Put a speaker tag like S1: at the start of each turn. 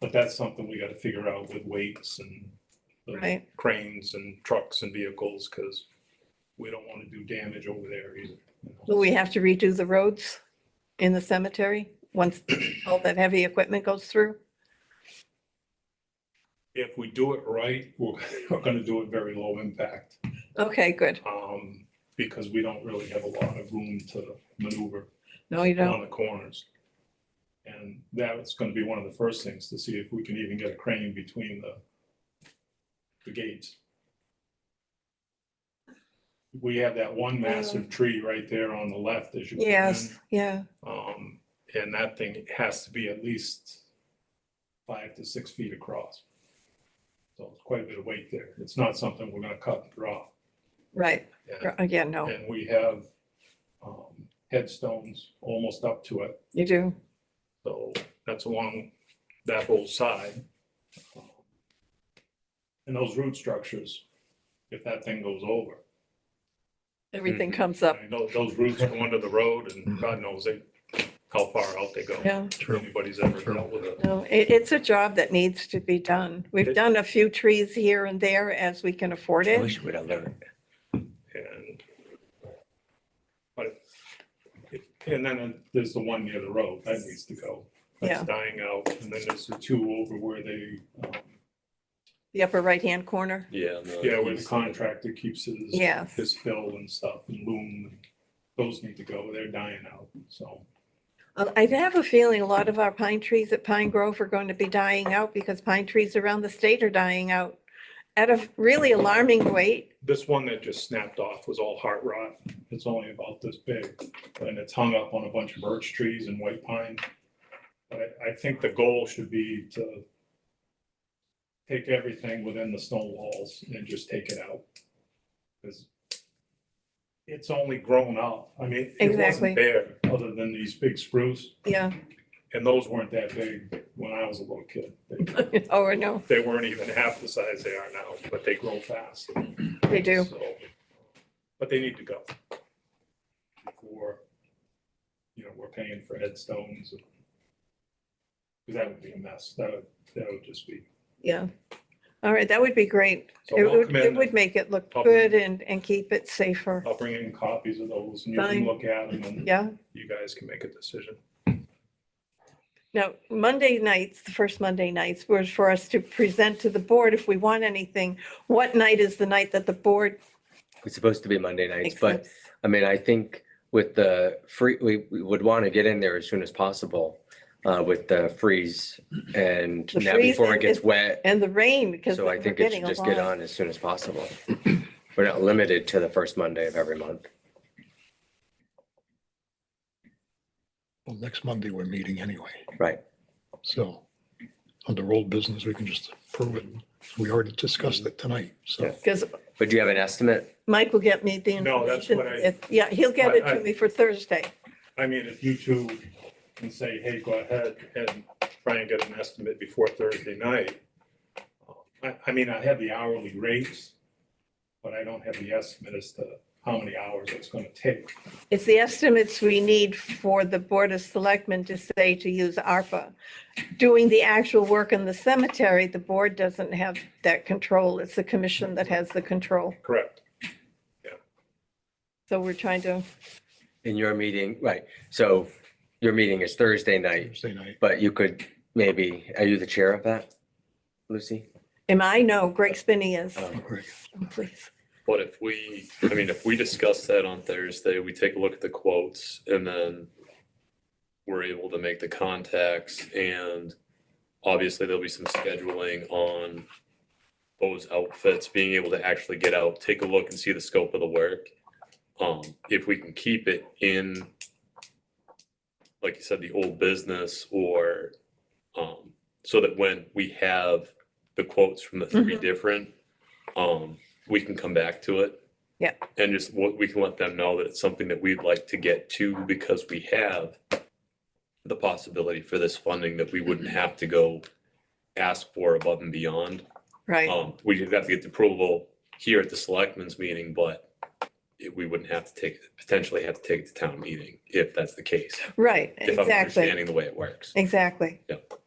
S1: But that's something we gotta figure out with weights and the
S2: Right.
S1: cranes and trucks and vehicles, because we don't wanna do damage over there either. you know.
S2: Will we have to redo the roads in the cemetery once all that heavy equipment goes through?
S1: If we do it right, we're, we're gonna do it very low impact,
S2: Okay, good.
S1: um, because we don't really have a lot of room to maneuver
S2: No, you don't.
S1: on the corners. And that's gonna be one of the first things, to see if we can even get a crane between the, the gates. We have that one massive tree right there on the left as you. come in.
S2: Yes, yeah,
S1: Um, and that thing has to be at least five to six feet across. So it's quite a bit of weight there. It's not something we're gonna cut and draw.
S2: right.
S1: And-
S2: R- Yeah, no,
S1: And we have, um, headstones almost up to it.
S2: you do.
S1: So that's along that whole side. And those root structures, if that thing goes over,
S2: Everything
S3: Mhm.
S2: comes
S1: I
S2: up.
S1: mean, tho- those roots go under the road and God knows they, how far out they go.
S2: Yeah,
S1: Anybody's ever
S3: Mm-hmm. True.
S1: dealt with it.
S2: no, it, it's a job that needs to be done. We've done a few trees here and there as we can afford
S3: I
S2: it.
S3: wish we'd have learned.
S1: And. But. it- And then there's the one near the road that needs to go. That's
S2: Yeah.
S1: dying out. And then there's the two over where they, um,
S2: The upper right-hand corner.
S3: Yeah.
S1: yeah, where the contractor keeps his.
S2: Yes.
S1: His fill and stuff and loom. Those need to go. They're dying out. So.
S2: Uh, I have a feeling a lot of our pine trees at Pine Grove are going to be dying out because pine trees around the state are dying out at a really alarming rate.
S1: This one that just snapped off was all heart rot. It's only about this big and it's hung up on a bunch of birch trees and white pine. But I, I think the goal should be to take everything within the stone walls and just take it out. Because it's only grown up. I mean, it
S2: Exactly.
S1: wasn't there other than these big spruce
S2: Yeah,
S1: and those weren't that big when I was a little kid. They-
S2: oh, I know,
S1: They weren't even half the size they are now, but they grow fast.
S2: they do.
S1: So, But they need to go. Before, you know, we're paying for headstones. and- 'cause that would be a mess. That would, that would just be.
S2: Yeah. All right, that would be great.
S1: So
S2: It
S1: we'll
S2: would,
S1: come
S2: it
S1: in
S2: would
S1: and
S2: make it look
S1: I'll-
S2: good and, and keep it safer.
S1: I'll bring in copies of those and you can
S2: Fine.
S1: look at them and
S2: Yeah.
S1: you guys can make a decision.
S2: Now, Monday nights, the first Monday nights was for us to present to the board if we want anything. What night is the night that the board
S3: It's supposed to be Monday nights, but
S2: accepts?
S3: I mean, I think with the free, we, we would want to get in there as soon as possible uh, with the freeze and
S2: The
S3: now before
S2: freezing
S3: it gets
S2: is-
S3: wet.
S2: And the rain because
S3: So
S2: we're
S3: I think it
S2: getting
S3: should
S2: a
S3: just get
S2: lot.
S3: on as soon as possible. We're not limited to the first Monday of every month.
S4: Well, next Monday, we're meeting anyway,
S3: Right.
S4: so under old business, we can just approve it. We already discussed it tonight, so.
S2: Because
S3: But do you have an estimate?
S2: Mike will get me the
S1: No, that's
S2: information.
S1: what I-
S2: If- Yeah, he'll get it
S1: I-
S2: to
S1: I-
S2: me for Thursday.
S1: I mean, if you two can say, hey, go ahead and try and get an estimate before Thursday night. I, I mean, I have the hourly rates, but I don't have the estimate as to how many hours it's gonna take.
S2: It's the estimates we need for the Board of Selectmen to say to use ARPA. Doing the actual work in the cemetery, the board doesn't have that control. It's the commission that has the control.
S1: Correct.
S2: So we're trying to,
S3: In your meeting, right, so your meeting is Thursday night,
S4: Thursday night,
S3: but you could maybe, are you the chair of that, Lucy?
S2: am I? No, Greg Spinney is.
S3: Oh.
S4: Greg,
S2: Please.
S5: But if we, I mean, if we discuss that on Thursday, we take a look at the quotes and then we're able to make the contacts and obviously there'll be some scheduling on those outfits, being able to actually get out, take a look and see the scope of the work. Um, if we can keep it in, like you said, the old business or, um, so that when we have the quotes from the three
S2: Mhm.
S5: different, um, we can come back to it.
S2: Yeah.
S5: And just what we can let them know that it's something that we'd like to get to because we have the possibility for this funding that we wouldn't have to go ask for above and beyond.
S2: Right.
S5: Um, we just have to get the approval here at the selectmen's meeting, but it- we wouldn't have to take, potentially have to take it to town meeting if that's the case.
S2: Right,
S5: If I'm
S2: exactly.
S5: understanding the way it works.
S2: Exactly.
S5: Yep.